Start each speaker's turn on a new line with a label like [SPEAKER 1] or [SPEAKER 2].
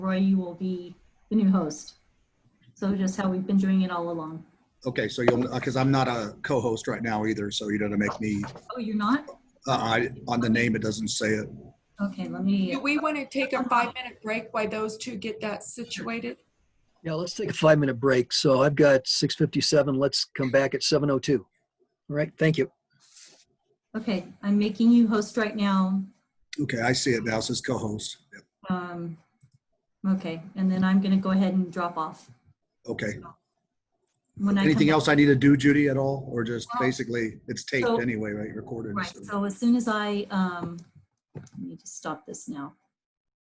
[SPEAKER 1] Roy, you will be the new host. So just how we've been doing it all along.
[SPEAKER 2] Okay, so you'll, because I'm not a co-host right now either, so you're gonna make me,
[SPEAKER 1] Oh, you're not?
[SPEAKER 2] uh, I, on the name, it doesn't say it.
[SPEAKER 1] Okay, let me,
[SPEAKER 3] Do we want to take a five-minute break while those two get that situated?
[SPEAKER 4] Yeah, let's take a five-minute break. So I've got 6:57. Let's come back at 7:02. All right, thank you.
[SPEAKER 1] okay, I'm making you host right now.
[SPEAKER 2] Okay, I see it now, it says co-host. Yep,
[SPEAKER 1] Um, Okay, and then I'm going to go ahead and drop off.
[SPEAKER 2] Okay,
[SPEAKER 1] When I come
[SPEAKER 2] anything
[SPEAKER 1] back-
[SPEAKER 2] else I need to do, Judy, at all, or just
[SPEAKER 1] Well,
[SPEAKER 2] basically, it's taped
[SPEAKER 1] so-
[SPEAKER 2] anyway, right, recorded?
[SPEAKER 1] Right,
[SPEAKER 2] so-
[SPEAKER 1] so as soon as I, um, let me just stop this now.